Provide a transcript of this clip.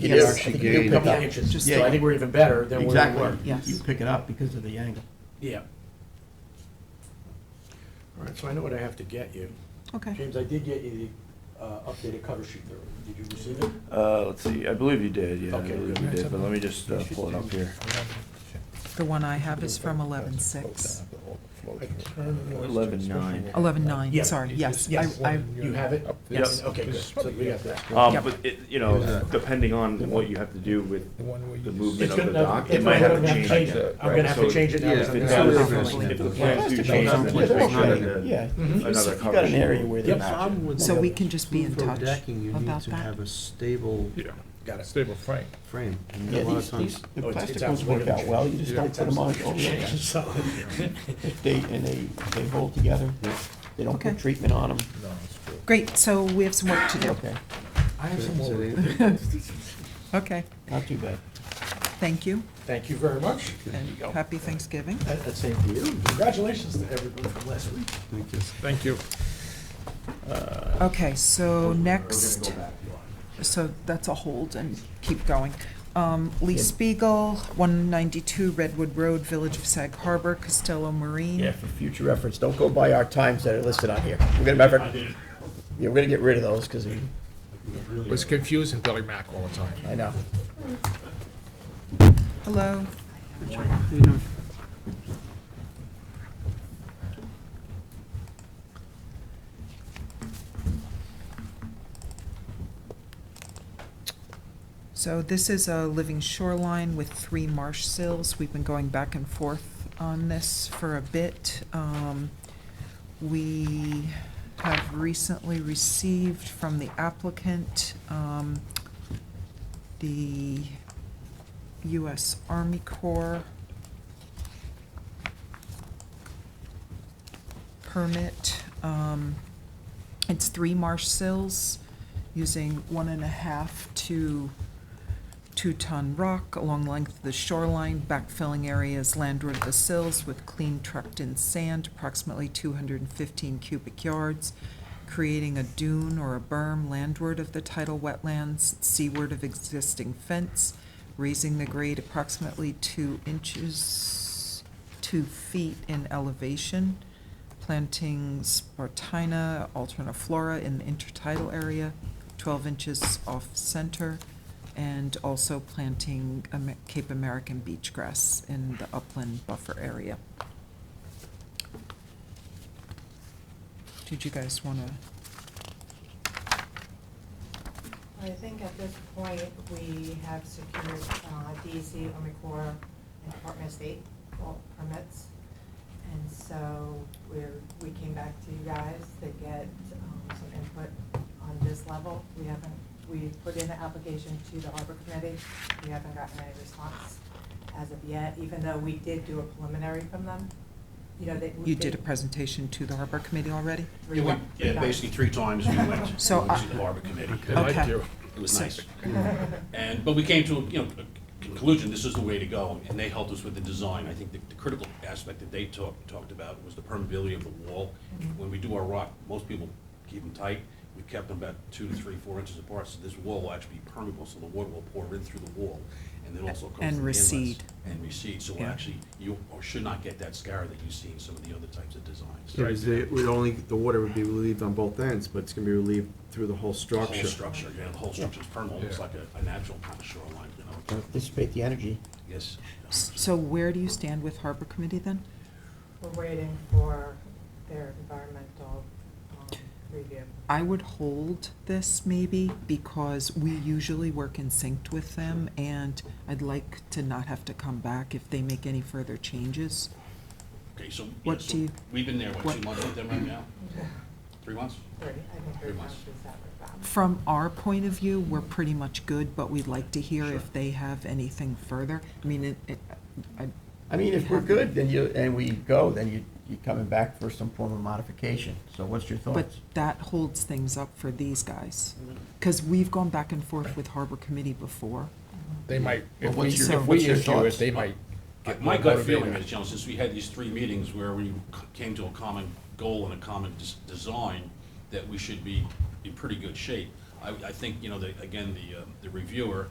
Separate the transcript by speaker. Speaker 1: You
Speaker 2: It
Speaker 1: can
Speaker 2: is-
Speaker 1: actually
Speaker 2: I think you do
Speaker 1: gain-
Speaker 2: pick up.
Speaker 1: Yeah,
Speaker 3: inches,
Speaker 2: Yeah,
Speaker 3: so I think we're even better than where we
Speaker 2: Exactly.
Speaker 3: were.
Speaker 2: You-
Speaker 4: Yes.
Speaker 2: You pick it up because of the angle.
Speaker 3: Yeah. All right, so I know what I have to get you.
Speaker 4: Okay.
Speaker 3: James, I did get you the uh, updated cover sheet there. Did you receive it?
Speaker 1: Uh, let's see, I believe you did, yeah, I
Speaker 3: Okay,
Speaker 1: believe you did, but let me just uh, pull it up here.
Speaker 4: The one I have is from eleven six.
Speaker 1: Eleven nine.
Speaker 4: Eleven nine.
Speaker 3: Yeah.
Speaker 4: sorry, yes. I-
Speaker 3: Yes.
Speaker 4: I-
Speaker 3: You have it?
Speaker 1: Yes.
Speaker 3: Okay, good. So we got that.
Speaker 1: Um,
Speaker 4: Yep.
Speaker 1: but it, you know, depending on what you have to do with the
Speaker 3: It's
Speaker 1: movement of the
Speaker 3: good
Speaker 1: dock,
Speaker 3: enough.
Speaker 1: it
Speaker 3: If
Speaker 1: might
Speaker 3: I'm
Speaker 1: have
Speaker 3: gonna
Speaker 1: to change
Speaker 3: it,
Speaker 1: it.
Speaker 3: I'm
Speaker 1: right?
Speaker 3: gonna have to
Speaker 1: So
Speaker 3: change it now.
Speaker 5: yeah,
Speaker 3: because
Speaker 1: If
Speaker 3: I'm
Speaker 1: it's-
Speaker 3: gonna-
Speaker 5: Yeah.
Speaker 1: if the plans do change, then
Speaker 5: Yeah.
Speaker 1: it might need a-
Speaker 2: Yeah.
Speaker 4: Mm-hmm.
Speaker 1: another
Speaker 2: You've
Speaker 1: cover
Speaker 2: got an
Speaker 1: sheet.
Speaker 2: area where they
Speaker 3: Yep.
Speaker 2: match.
Speaker 5: Problem with
Speaker 4: So
Speaker 5: the
Speaker 4: we can just be in
Speaker 5: roof or
Speaker 4: touch
Speaker 5: decking, you need
Speaker 4: about
Speaker 5: to
Speaker 4: that.
Speaker 5: have a stable
Speaker 3: Got it.
Speaker 6: Stable frame.
Speaker 5: frame. And a
Speaker 2: Yeah,
Speaker 5: lot of
Speaker 2: these, these,
Speaker 5: times-
Speaker 2: the
Speaker 3: Oh, it's-
Speaker 2: plastic
Speaker 3: it's
Speaker 2: ones work
Speaker 3: absolutely-
Speaker 2: out well, you just don't put them on oh, overlay.
Speaker 3: So,
Speaker 2: If they, and they, they hold together, they don't put
Speaker 4: Okay.
Speaker 2: treatment on them.
Speaker 6: No, it's good.
Speaker 4: Great, so we have some work to do.
Speaker 2: Okay,
Speaker 3: I have some
Speaker 5: so
Speaker 3: more.
Speaker 5: they-
Speaker 4: Okay,
Speaker 2: not too bad.
Speaker 4: thank you,
Speaker 3: Thank you very much.
Speaker 4: and happy Thanksgiving.
Speaker 3: Uh, uh, Same to you. Congratulations to everybody from last week.
Speaker 5: Thank you.
Speaker 6: Thank you.
Speaker 4: Okay, so
Speaker 3: We're
Speaker 4: next,
Speaker 3: gonna go back.
Speaker 4: so that's a hold and keep going. Um, Lee Spiegel, one ninety-two Redwood Road, Village of Sag Harbor, Costello Marine.
Speaker 2: Yeah, for future reference, don't go by our times that are listed on here. We're gonna remember, yeah, we're gonna get rid of those, because
Speaker 6: It was confusing Billy Mack all the time.
Speaker 2: I know.
Speaker 4: Hello, so this is a living shoreline with three marsh sills. We've been going back and forth on this for a bit. Um, We have recently received from the applicant, um, the US Army Corps permit. Um, It's three marsh sills using one and a half to two-ton rock along length of the shoreline, backfilling areas landward of the sills with clean trucked-in sand, approximately 215 cubic yards, creating a dune or a berm landward of the tidal wetlands, seaward of existing fence, raising the grade approximately two inches, two feet in elevation, planting Spartina alterniflora in the intertidal area, 12 inches off-center, and also planting Am- Cape American beach grass in the upland buffer area. Did you guys want to?
Speaker 7: I think at this point, we have secured uh, DEC, Army Corps, and Department of State all permits. And so we're, we came back to you guys to get um, some input on this level. We haven't, we put in the application to the Harbor Committee. We haven't gotten any response as of yet, even though we did do a preliminary from them. You know, they.
Speaker 4: You did a
Speaker 7: they-
Speaker 4: presentation to the harbor committee already?
Speaker 7: we
Speaker 8: Yeah,
Speaker 7: got-
Speaker 8: we, yeah,
Speaker 7: got-
Speaker 8: basically three times we went to
Speaker 4: So uh, I-
Speaker 8: the harbor committee.
Speaker 6: They liked
Speaker 4: Okay.
Speaker 6: you.
Speaker 8: It was nice. And, but we came to, you know, a conclusion, this is the way to go, and they helped us with the design. I think the the critical aspect that they talked, talked about was the permeability of the wall. When we do our rock, most people keep them tight. We kept them about two to three, four inches apart, so this wall will actually be permeable, so the water will pour in through the wall, and then also comes through
Speaker 4: And
Speaker 8: the inlets
Speaker 4: recede.
Speaker 8: And recede, so
Speaker 4: Yeah.
Speaker 8: actually, you should not get that scar that you see in some of the other types of designs.
Speaker 5: It was- it would only, the water would be relieved on both ends, but it's gonna be relieved through the whole
Speaker 8: The whole
Speaker 5: structure.
Speaker 8: structure, yeah, the whole structure's permeable, it's like a, a natural kind of shoreline, you know,
Speaker 2: Dissipate the energy.
Speaker 8: yes.
Speaker 4: So where do you stand with harbor committee then?
Speaker 7: We're waiting for their environmental um, review.
Speaker 4: I would hold this maybe because we usually work in sync with them and I'd like to not have to come back if they make any further changes.
Speaker 8: Okay, so, yeah,
Speaker 4: What do
Speaker 8: so
Speaker 4: you-
Speaker 8: we've been there, what,
Speaker 4: what-
Speaker 8: two months with them right now? Three months?
Speaker 7: Three, I think three
Speaker 8: Three
Speaker 7: times
Speaker 8: months.
Speaker 7: is that we're back.
Speaker 4: From our point of view, we're pretty much good, but we'd like to hear if they have anything further. I mean, it, it, I,
Speaker 2: I mean, if we're good, then you, and we go, then you, you're coming back for some form of modification. So what's your
Speaker 4: But
Speaker 2: thoughts?
Speaker 4: that holds things up for these guys, because we've gone back and forth with Harbor Committee before.
Speaker 6: They might, if we,
Speaker 2: what's your-
Speaker 6: if
Speaker 2: what's
Speaker 6: we
Speaker 2: your
Speaker 6: issue
Speaker 2: thoughts?
Speaker 6: it, they might get
Speaker 8: My
Speaker 6: more
Speaker 8: gut feeling
Speaker 6: motivated.
Speaker 8: is, you know, since we had these three meetings where we c- came to a common goal and a common des- design, that we should be in pretty good shape. I, I think, you know, the, again, the, um, the reviewer